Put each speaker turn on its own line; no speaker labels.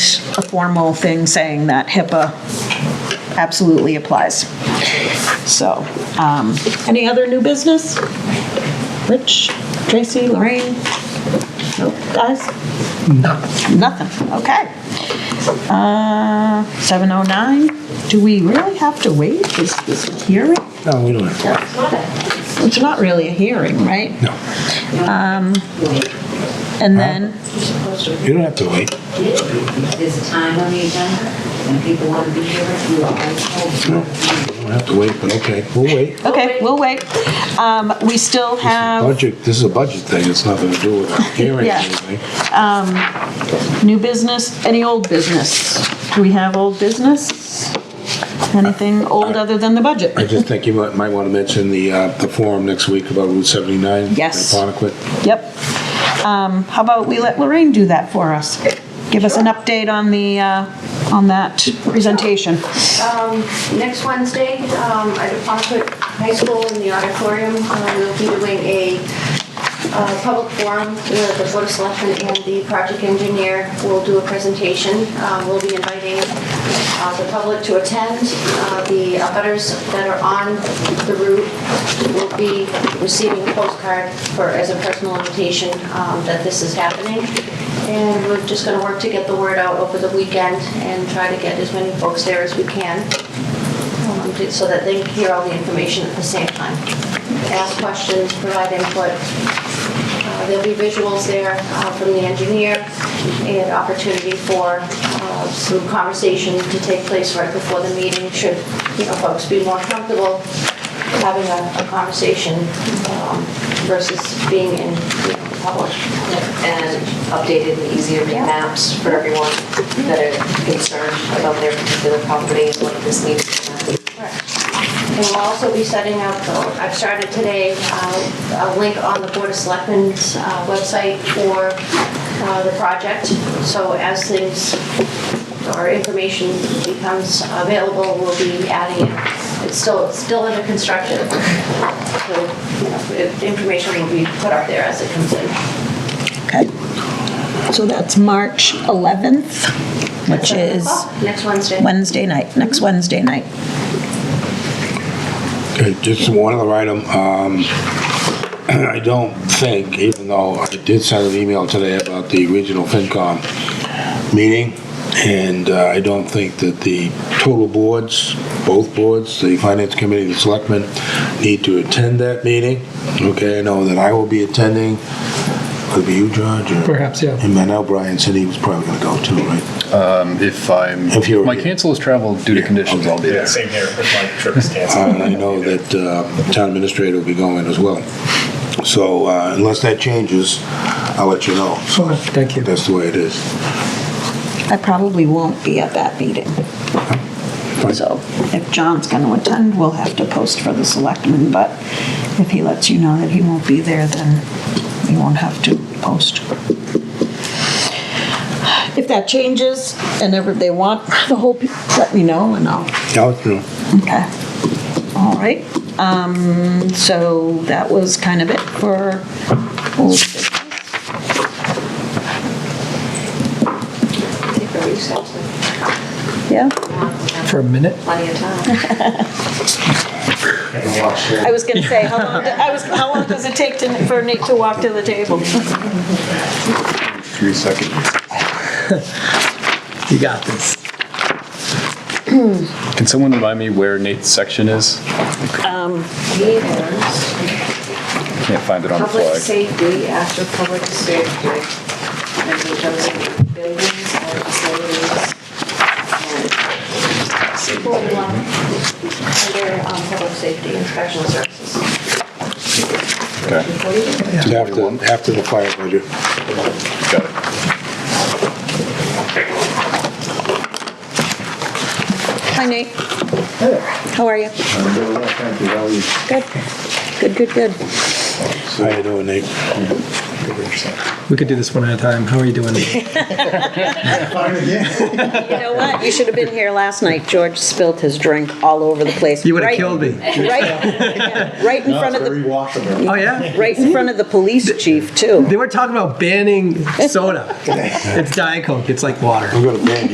a formal thing saying that HIPAA absolutely applies. So, um, any other new business? Rich, Tracy, Lorraine? Nope, guys? Nothing, okay. Uh, 7:09, do we really have to wait? Is this a hearing?
No, we don't have
It's not really a hearing, right?
to, no.
And then,
You don't have to wait.
There's a time on the agenda, and people want to be here, you are always told.
You don't have to wait, but okay, we'll wait.
okay, we'll wait. Um, We still have
Budget, this is a budget thing, it's nothing to do with our hearing or
Um, Yeah.
anything.
new business, any old business? Do we have old business? Anything old other than the budget?
I just think you might, might want to mention the, uh, the forum next week about Route 79.
Yes.
in Ponequid.
Yep. Um, How about we let Lorraine do that for us? Give us an update on the, uh, on that presentation.
Next Wednesday, um, at Apoquet High School in the auditorium, uh, we'll be doing a uh, public forum where the Board of Selectmen and the project engineer will do a presentation. Uh, We'll be inviting uh, the public to attend. Uh, The abutters that are on the route will be receiving a postcard for, as a personal invitation um, that this is happening. And we're just going to work to get the word out over the weekend and try to get as many folks there as we can um, to- so that they can hear all the information at the same time. Ask questions, provide input. Uh, There'll be visuals there uh, from the engineer and opportunity for uh, some conversation to take place right before the meeting, should, you know, folks be more comfortable having a a conversation um, versus being in you know, public.
And updated and easy to read maps for everyone that are concerned about their particular property and what this needs to be.
And we'll also be setting up, uh, I've started today, uh, a link on the Board of Selectmen's uh, website for uh, the project. So as things or information becomes available, we'll be adding it. It's still, it's still under construction. So you know, if- information will be put up there as it comes in.
Okay. So that's March 11th, which is
Next Wednesday.
Wednesday night, next Wednesday night.
Okay, just one other item. Um, I don't think, even though I did send an email today about the regional FinCom meeting, and uh, I don't think that the total boards, both boards, the Finance Committee, the Selectmen, need to attend that meeting. Okay, I know that I will be attending. Could be you, George? or-
Perhaps, yeah.
And I know Brian said he was probably going to go too, right?
If I'm,
If you're-
my cancel is travel due to conditions, I'll be
Yeah,
there.
same here, if my trip is canceled.
And I know that uh, Town Administrator will be going as well. So uh, unless that changes, I'll let you know. So
Thank you.
That's the way it is.
I probably won't be at that meeting. So if John's going to attend, we'll have to post for the selectmen, but if he lets you know that he won't be there, then we won't have to post. If that changes and ever they want the whole, pe- let me know and I'll
I'll let you know.
Okay, all right. Um, So that was kind of it for old business.
Take a recess,
Yeah,
For a minute?
plenty of time.
I was going to say, how long, I was, how long does it take to- for Nate to walk to the table?
Three seconds.
You got this.
Can someone remind me where Nate's section is?
Meetings,
Can't find it on the
public
flag.
safety, after public safety, and the other buildings and facilities.
People want Under um, public safety and professional services.
Okay,
It's After, after the fire budget.
got it.
Hi, Nate. How are you? Good. Good, good, good.
How you doing, Nate?
We could do this one at a time. How are you doing?
You know what? You should have been here last night. George spilt his drink all over the place.
You would've
Right-
killed me.
Right, right in front of the,
Oh, yeah?
right in front of the police chief, too.
They were talking about banning soda. It's Diet Coke. It's like water.
I'm going to ban